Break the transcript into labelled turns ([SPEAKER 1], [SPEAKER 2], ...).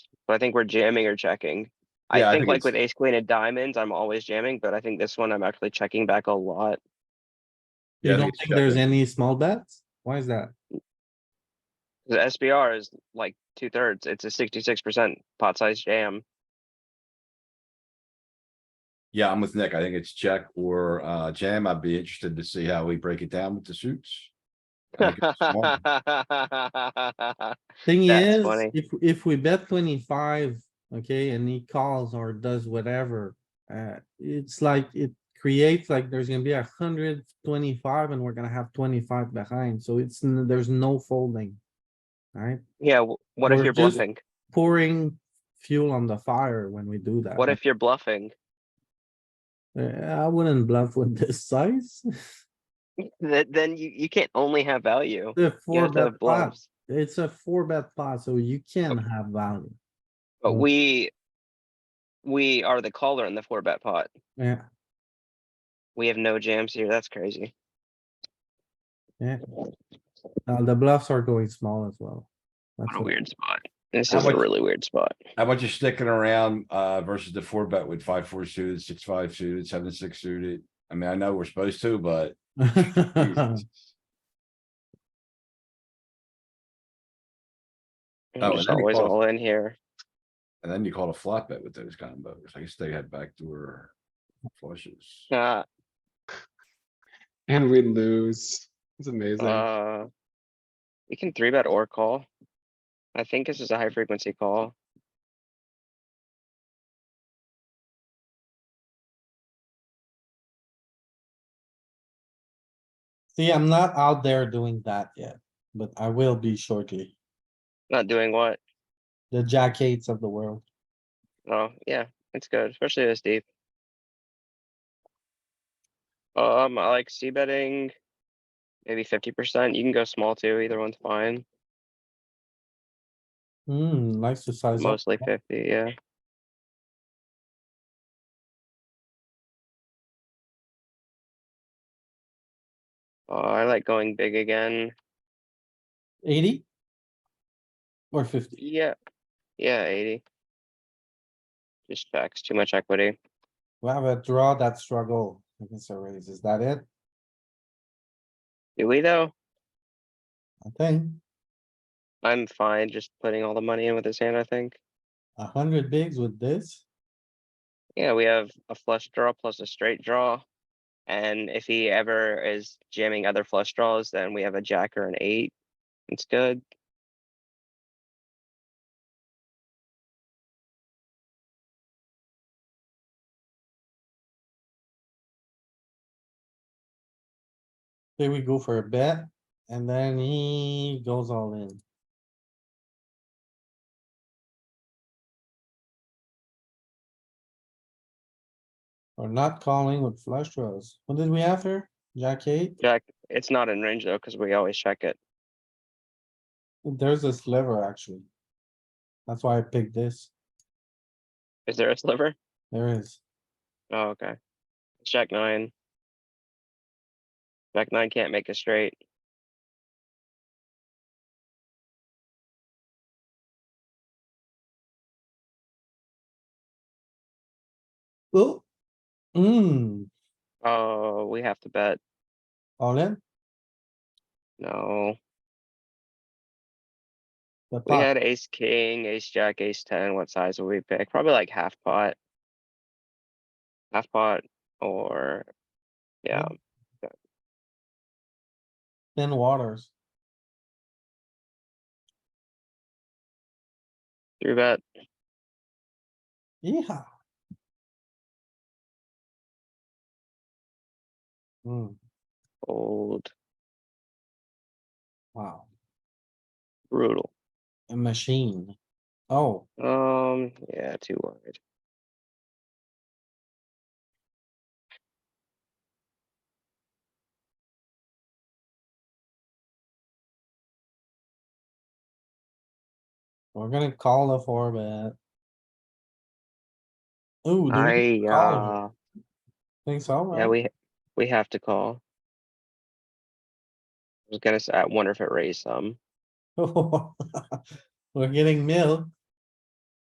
[SPEAKER 1] but I think we're jamming or checking.
[SPEAKER 2] Yeah, I
[SPEAKER 1] I think
[SPEAKER 2] think
[SPEAKER 1] like
[SPEAKER 2] it's-
[SPEAKER 1] with ace queen and diamonds, I'm always jamming, but I think this one I'm actually checking back a lot.
[SPEAKER 2] Yeah,
[SPEAKER 3] You
[SPEAKER 2] I
[SPEAKER 3] don't
[SPEAKER 2] it's
[SPEAKER 3] think there's
[SPEAKER 2] checking.
[SPEAKER 3] any small bets? Why is that?
[SPEAKER 1] The SBR is like two thirds. It's a sixty-six percent pot size jam.
[SPEAKER 2] Yeah, I'm with Nick. I think it's check or uh jam. I'd be interested to see how we break it down with the suits. I think it's small.
[SPEAKER 3] Thing
[SPEAKER 1] That's
[SPEAKER 3] is,
[SPEAKER 1] funny.
[SPEAKER 3] if, if we bet twenty-five, okay, and he calls or does whatever, uh, it's like, it creates like there's gonna be a hundred twenty-five and we're gonna have twenty-five behind, so it's, n- there's no folding. Alright,
[SPEAKER 1] Yeah, w- what if
[SPEAKER 3] We're
[SPEAKER 1] you're
[SPEAKER 3] just-
[SPEAKER 1] bluffing?
[SPEAKER 3] pouring fuel on the fire when we do that.
[SPEAKER 1] What if you're bluffing?
[SPEAKER 3] Uh, I wouldn't bluff with this size.
[SPEAKER 1] Th- then you, you can't only have value.
[SPEAKER 3] The
[SPEAKER 1] You
[SPEAKER 3] four
[SPEAKER 1] have to
[SPEAKER 3] bet
[SPEAKER 1] have
[SPEAKER 3] pot,
[SPEAKER 1] bluffs.
[SPEAKER 3] it's a four bet pot, so you can have value,
[SPEAKER 1] But
[SPEAKER 3] Mm.
[SPEAKER 1] we, we are the caller in the four bet pot.
[SPEAKER 3] yeah.
[SPEAKER 1] We have no jams here. That's crazy.
[SPEAKER 3] Uh, the bluffs are going small as well. That's
[SPEAKER 1] What a
[SPEAKER 3] it.
[SPEAKER 1] weird spot. This
[SPEAKER 2] How
[SPEAKER 1] is a
[SPEAKER 2] much-
[SPEAKER 1] really weird spot.
[SPEAKER 2] How about you sticking around uh versus the four bet with five, four suited, six, five suited, seven, six suited? I mean, I know we're supposed to, but Jesus.
[SPEAKER 1] I'm
[SPEAKER 2] Oh, and
[SPEAKER 1] just
[SPEAKER 2] then we
[SPEAKER 1] always
[SPEAKER 2] call-
[SPEAKER 1] all in here.
[SPEAKER 2] and then you call it a flat bet with those combos. I guess they had backdoor flushes.
[SPEAKER 1] Uh,
[SPEAKER 4] And we lose. It's amazing.
[SPEAKER 1] uh. We can three bet or call. I think this is a high frequency call.
[SPEAKER 3] See, I'm not out there doing that yet, but I will be shortly.
[SPEAKER 1] Not doing what?
[SPEAKER 3] The jack eights of the world.
[SPEAKER 1] Oh, yeah, it's good, especially this deep. Um, I like c betting. Maybe fifty percent. You can go small too. Either one's fine.
[SPEAKER 3] Hmm, likes to size up.
[SPEAKER 1] Mostly fifty, yeah. Uh, I like going big again.
[SPEAKER 3] Eighty? Or fifty?
[SPEAKER 1] Yeah, yeah, eighty. Just checks, too much equity.
[SPEAKER 3] We have a draw that struggle against a raise. Is that it?
[SPEAKER 1] Do we though?
[SPEAKER 3] I think
[SPEAKER 1] I'm fine just putting all the money in with his hand, I think.
[SPEAKER 3] a hundred bigs with this.
[SPEAKER 1] Yeah, we have a flush draw plus a straight draw. And if he ever is jamming other flush draws, then we have a jack or an eight. It's good.
[SPEAKER 3] Here we go for a bet and then he goes all in. Or not calling with flush draws. What did we have here? Jack eight?
[SPEAKER 1] Jack, it's not in range though, because we always check it.
[SPEAKER 3] There's a sliver actually. That's why I picked this.
[SPEAKER 1] Is there a sliver?
[SPEAKER 3] There is.
[SPEAKER 1] Oh, okay. Jack nine. Jack nine can't make a straight.
[SPEAKER 3] Oh. Hmm,
[SPEAKER 1] Oh, we have to bet.
[SPEAKER 3] all in?
[SPEAKER 1] No.
[SPEAKER 3] The
[SPEAKER 1] We
[SPEAKER 3] pot.
[SPEAKER 1] had ace, king, ace, jack, ace ten. What size would we pick? Probably like half pot. Half pot or, yeah.
[SPEAKER 3] Thin waters.
[SPEAKER 1] Three bet,
[SPEAKER 3] Yeah. Hmm,
[SPEAKER 1] old,
[SPEAKER 3] wow,
[SPEAKER 1] brutal.
[SPEAKER 3] a machine. Oh,
[SPEAKER 1] Um, yeah, too wide.
[SPEAKER 3] we're gonna call the four bet. Ooh, do we
[SPEAKER 1] I,
[SPEAKER 3] call
[SPEAKER 1] uh,
[SPEAKER 3] think so?
[SPEAKER 1] yeah,
[SPEAKER 3] right?
[SPEAKER 1] we, we have to call. I was gonna say, I wonder if it raised some.
[SPEAKER 3] We're getting milk.